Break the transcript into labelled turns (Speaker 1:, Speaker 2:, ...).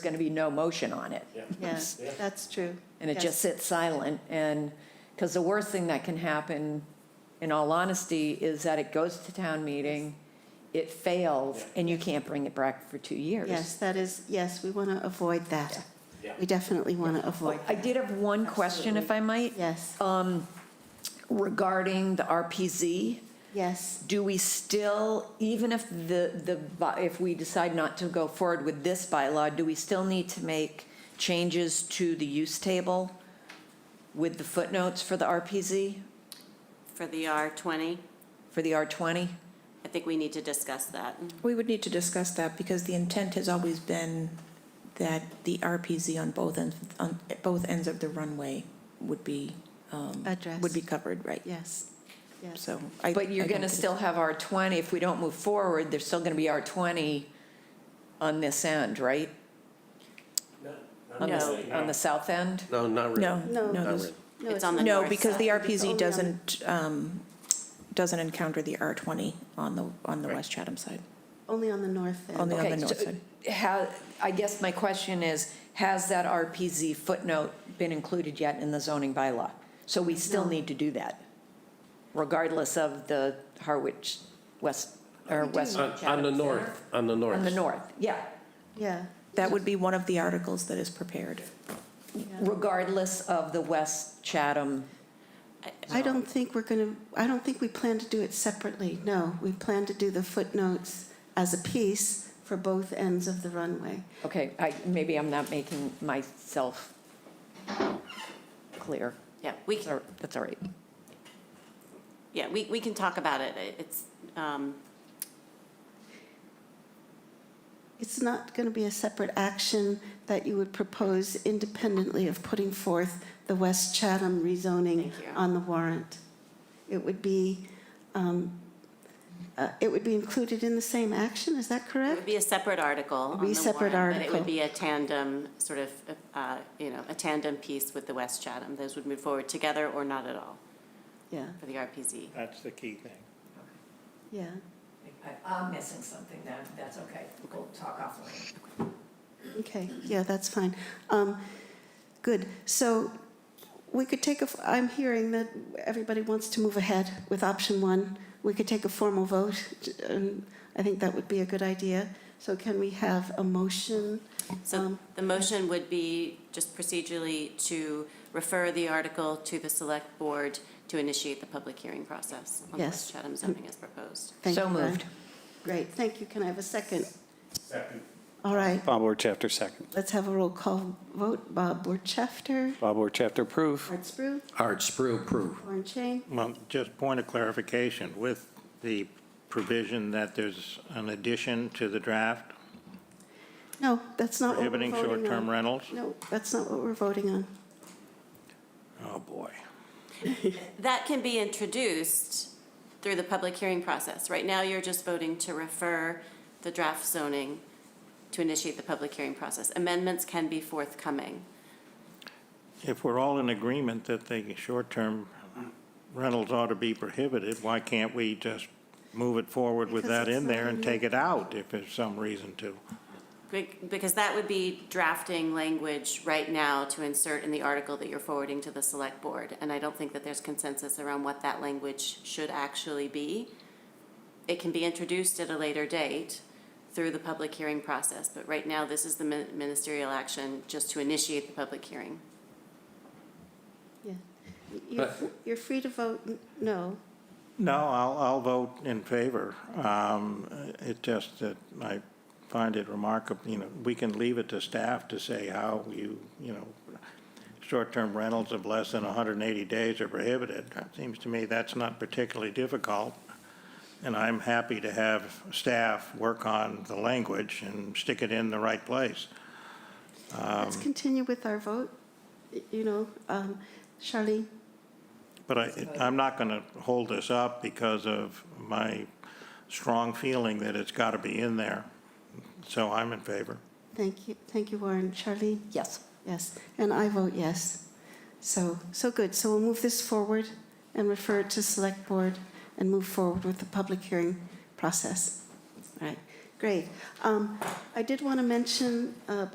Speaker 1: going to be no motion on it.
Speaker 2: Yeah, that's true.
Speaker 1: And it
Speaker 2: Yes.
Speaker 1: just sits silent. And, because the worst thing that can happen, in all honesty, is that it goes to town meeting, it fails, and you can't bring it back for two years.
Speaker 2: Yes, that is, yes, we want to avoid that. We definitely want to avoid
Speaker 1: I
Speaker 2: that.
Speaker 1: did have one question, if I might, Um,
Speaker 2: Yes,
Speaker 1: regarding the RPZ.
Speaker 2: yes,
Speaker 1: Do we still, even if the, the, by- if we decide not to go forward with this bylaw, do we still need to make changes to the use table with the footnotes for the RPZ,
Speaker 3: For the R20,
Speaker 1: for the R20?
Speaker 3: I think we need to discuss that.
Speaker 4: We would need to discuss that because the intent has always been that the RPZ on both ends, on both ends of the runway would be, um,
Speaker 2: Addressed.
Speaker 4: would be covered, right?
Speaker 2: yes, yes.
Speaker 4: So I.
Speaker 1: But you're
Speaker 4: I don't
Speaker 1: going to
Speaker 4: think-
Speaker 1: still have R20, if we don't move forward, there's still going to be R20 on this end, right? On the-
Speaker 3: No.
Speaker 1: On the south end?
Speaker 5: No, not really.
Speaker 4: No,
Speaker 2: No.
Speaker 4: no,
Speaker 5: Not
Speaker 4: those-
Speaker 5: really.
Speaker 3: It's on the
Speaker 4: no,
Speaker 3: north
Speaker 4: because the
Speaker 2: It's only
Speaker 3: side.
Speaker 2: on
Speaker 4: RPZ
Speaker 2: the-
Speaker 4: doesn't, um, doesn't encounter the R twenty on the, on the
Speaker 5: Right.
Speaker 4: West Chatham side.
Speaker 2: Only on the north end.
Speaker 4: Only on
Speaker 1: Okay,
Speaker 4: the north
Speaker 1: so,
Speaker 4: side.
Speaker 1: How, I guess my question is, has that RPZ footnote been included yet in the zoning bylaw? So we still need to do that, regardless of the Harwich West, or West.
Speaker 5: On, on the
Speaker 1: Chatham Center?
Speaker 5: north, on the north.
Speaker 1: On the north, yeah,
Speaker 2: Yeah,
Speaker 4: That would be one of the articles that is prepared.
Speaker 2: yeah.
Speaker 1: regardless of the West Chatham.
Speaker 2: I don't think we're going to, I don't think we plan to do it separately, no. We plan to do the footnotes as a piece for both ends of the runway.
Speaker 1: Okay, I, maybe I'm not making myself clear.
Speaker 3: Yeah, we,
Speaker 1: That's all- That's all right.
Speaker 3: yeah, we, we can talk about it. It- It's, um,
Speaker 2: It's not going to be a separate action that you would propose independently of putting forth the West Chatham rezoning
Speaker 3: Thank you.
Speaker 2: on the warrant. It would be, um, uh, it would be included in the same action, is that
Speaker 3: it would
Speaker 2: correct?
Speaker 3: be a separate article on
Speaker 2: be a
Speaker 3: the
Speaker 2: separate
Speaker 3: warrant, But it
Speaker 2: article.
Speaker 3: would be a tandem, sort of, uh, you know, a tandem piece with the West Chatham. Those would move forward together or not at all
Speaker 2: Yeah,
Speaker 3: for the RPZ.
Speaker 6: That's the key thing.
Speaker 2: yeah.
Speaker 1: I'm missing something then, that's okay, we'll talk offline.
Speaker 2: Okay, yeah, that's fine. Um, Good, so we could take a, f- I'm hearing that everybody wants to move ahead with option one. We could take a formal vote, and I think that would be a good idea. So can we have a motion?
Speaker 3: So
Speaker 2: Um,
Speaker 3: the motion would be just procedurally to refer the article to the select board to initiate the public hearing process on the
Speaker 2: Yes.
Speaker 3: West Chatham zoning as proposed.
Speaker 2: Thank
Speaker 1: So
Speaker 2: you, Brian.
Speaker 1: moved.
Speaker 2: Great, thank you. Can I have a second? Second. All right,
Speaker 7: Bob Orchafter, second.
Speaker 2: let's have a roll call vote. Bob Borchafter,
Speaker 7: Bob Orchafter, approve.
Speaker 2: Art Spru,
Speaker 5: Art Sprue, approve.
Speaker 2: Warren Chain.
Speaker 6: Well, just point of clarification, with the provision that there's an addition to the draft
Speaker 2: No, that's not what we're voting
Speaker 6: prohibiting
Speaker 2: on.
Speaker 6: short-term rentals?
Speaker 2: No, that's not what we're voting on.
Speaker 6: Oh, boy.
Speaker 3: That can be introduced through the public hearing process. Right now, you're just voting to refer the draft zoning to initiate the public hearing process. Amendments can be forthcoming.
Speaker 6: If we're all in agreement that the short-term rentals ought to be prohibited, why can't we just move it forward with
Speaker 2: Because
Speaker 6: that
Speaker 2: it's
Speaker 6: in
Speaker 2: not
Speaker 6: there
Speaker 2: in
Speaker 6: and
Speaker 2: the-
Speaker 6: take it out if there's some reason to?
Speaker 3: Be- Because that would be drafting language right now to insert in the article that you're forwarding to the select board. And I don't think that there's consensus around what that language should actually be. It can be introduced at a later date through the public hearing process, but right now, this is the min- ministerial action just to initiate the public hearing.
Speaker 2: Yeah. You're, f- you're free to vote n- no.
Speaker 6: No, I'll, I'll vote in favor. Um, It just that I find it remarkable, you know, we can leave it to staff to say how you, you know, short-term rentals of less than 180 days are prohibited. It Seems to me that's not particularly difficult, and I'm happy to have staff work on the language and stick it in the right place.
Speaker 2: Let's continue with our vote, y- you know, um, Charlene,
Speaker 6: But I, I'm not going to hold this up because of my strong feeling that it's got to be in there. So I'm in favor.
Speaker 2: thank you, thank you, Warren. Charlene,
Speaker 1: Yes.
Speaker 2: yes, and I vote yes. So, so good, so we'll move this forward and refer it to Select Board and move forward with the public hearing process. All right, great. Um, I did want to mention, uh,